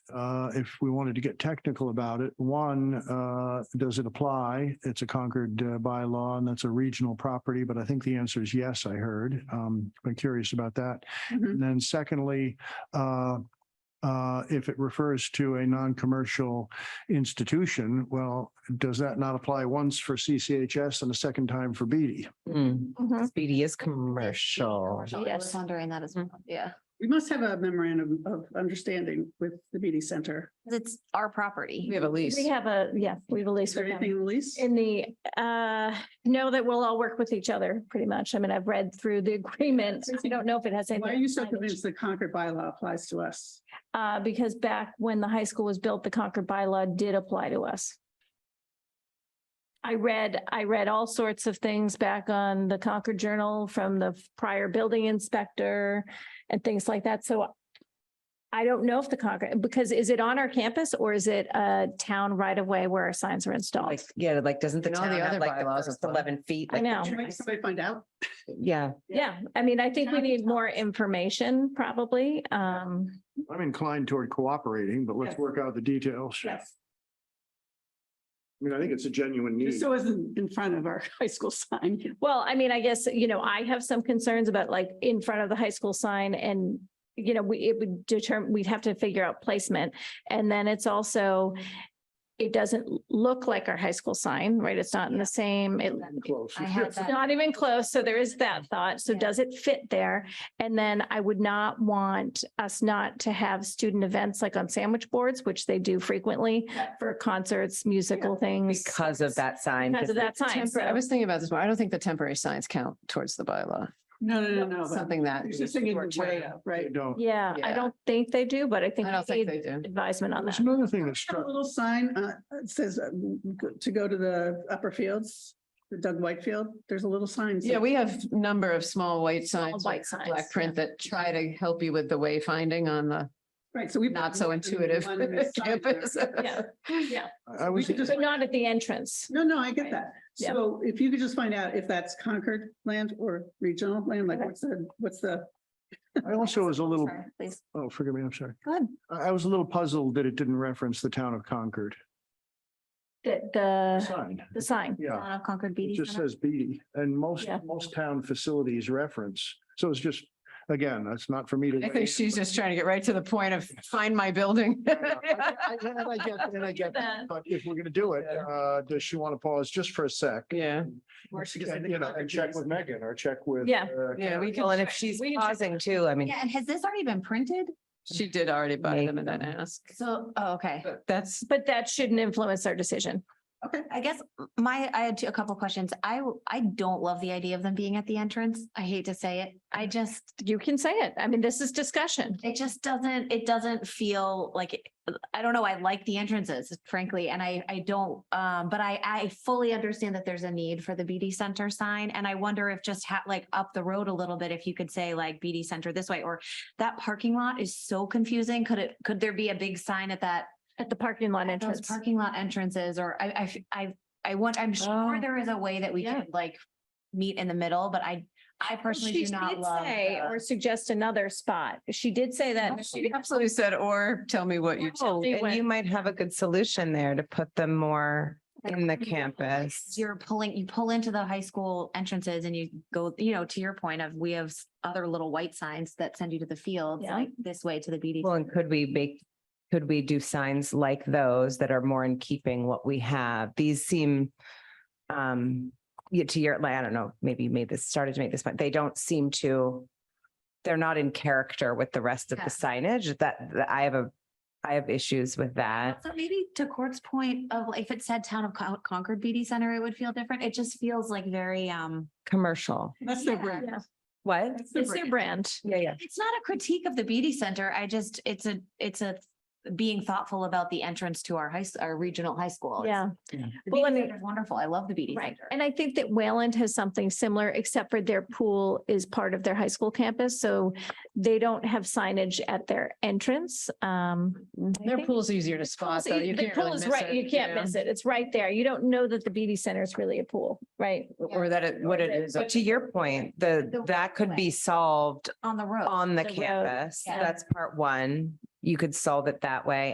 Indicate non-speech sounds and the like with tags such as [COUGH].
uh, if we wanted to get technical about it, one, uh, does it apply? It's a Concord uh, bylaw and that's a regional property, but I think the answer is yes, I heard. Um, I'm curious about that. Mm-hmm. Mhm. And then secondly, uh, uh, if it refers to a non-commercial institution, well, does that not apply once for CCHS and a second time for BD? Mm, Mhm. Speedy is commercial. I was Yes. Mm-hmm. wondering that as well. Yeah, We must have a memorandum of understanding with the BD Center. 'Cause it's our property. We have a lease. We have a, yeah, we have a Is lease there with anything them. in the lease? In the, uh, know that we'll all work with each other, pretty much. I mean, I've read through the [LAUGHS] agreement. I don't know if it has anything. Why are you so signage. convinced the Concord bylaw applies to us? Uh, because back when the high school was built, the Concord bylaw did apply to us. I read, I read all sorts of things back on the Concord Journal from the prior building inspector and things like that. So I don't know if the Concord, because is it on our campus or is it a town right of way where our signs are installed? Like, yeah, like, doesn't the And all the town have other like the bylaws first apply. eleven feet? Oh, I like the know. Should we- trees? Somebody find out? Yeah, Yeah, I mean, I think we need more information probably. Um, I'm inclined toward cooperating, but let's Yes. work out the details. Yes. I mean, I think it's a genuine need. Just so it isn't in front of our [LAUGHS] high school sign. well, I mean, I guess, you know, I have some concerns about like in front of the high school sign and you know, we, it would determine, we'd have to figure out placement. And then it's also, it doesn't look like our high school sign, right? It's not in the same, it, Close. I had It's that. not even close. So there is that thought. So Yeah. does it fit there? And then I would not want us not to have student events like on sandwich boards, which they do frequently for concerts, musical things. because of that sign. Because of that sign. Temporary, I So- was thinking about this, but I don't think the temporary signs count towards the bylaw, No, no, no, no. but something that. There's this thing in we're the way trying to- of, right? They don't. Yeah, I Yeah. don't think they do, but I think I don't we think need they do. advisement on There's that. another thing that A struck, little sign uh, it says um, go- to go to the upper fields, the Doug Whitefield, there's a little sign. Yeah, we have a number of small white signs, white with signs, black print that try to help you with the wayfinding on the Right, so we. not so intuitive One [LAUGHS] in the sign there. campus. Yeah. [LAUGHS] Yeah, I was, could just- but not at the entrance. No, no, I get that. Yeah. So if you could just find out if that's Concord land or regional land, like Okay. what's the, what's the, I also was a little, Sorry, Please, oh, forgive me, I'm sorry. go ahead. I, I was a little puzzled that it didn't reference the town of Concord The, the, sign. the sign. Yeah, Town of it Concord BD. just uh, Center. says BD and most, Yeah. most town facilities reference. So it's just, again, that's not for me to. I weigh in, think she's but- uh, just trying to get right to the point of find my building. I- I- And I get, and I [LAUGHS] get, that, but if we're gonna do it, uh, does she want to pause just for a sec? Yeah, Or she just- And, You know, and check with Megan or check with. Yeah. uh, yeah, we Well, can, and if she's pausing too, I mean, Yeah, and has this already been printed? she did already buy Make them and then them. ask, So, oh, okay. but that's, But that shouldn't influence our decision. Okay. I guess my, I had two- a couple questions. I, w- I don't love the idea of them being at the entrance. I hate to say it. I just, You can say it. I mean, this is discussion. it just doesn't, it doesn't feel like, it- I don't know, I like the entrances frankly, and I, I don't, um, but I, I fully understand that there's a need for the BD Center sign, and I wonder if just ha- like up the road a little bit, if you could say like BD Center this way, or that parking lot is so confusing, could it, could there be a big sign at that, At the parking lot those entrance. parking lot entrances, or I, I, f- I, I want, I'm sure Oh. there is a way that we Yeah. could like meet in the middle, but I, I personally She do not did love. say the- or suggest another spot. She did say that. she absolutely said, or tell me what you. oh, me and when- you might have a good solution there to put them more in the campus. you're pulling, you pull into the high school entrances and you go, you know, to your point of, we have s- other little white signs that send you to the fields, Yeah. like this way to the BD. Well, and could we make, could we do signs like those that are more in keeping what we have? These seem, um, yeah, to your, like, I don't know, maybe you made this, started to make this, but they don't seem to, they're not in character with the rest of Yeah. the signage that, that I have a, I have issues with that. So maybe to Court's point of, like, if it said town of Con- Concord BD Center, it would feel different. It just feels like very, um, Commercial. that's their Yeah. brand. Yeah. What? That's It's their brand. Yeah, yeah. it's not a critique of the BD Center. I just, it's a, it's a being thoughtful about the entrance to our high, s- our regional high school. It's- Yeah. The Well, BD and it- Center is wonderful. I love the BD Right. Center. And I think that Wayland has something similar, except for their pool is part of their high school campus. So they don't have signage at their entrance. Um, I Mm, Their think- pool's easier to spot though. You The can't e, pool really is miss right. it. You can't miss it. It's right there. You don't know that the BD Center is really a pool, right? Or that it, what it is. But to your point, the, The that could be walkway. solved On the road. on the The road, campus. yeah. That's part one. You could solve it that way.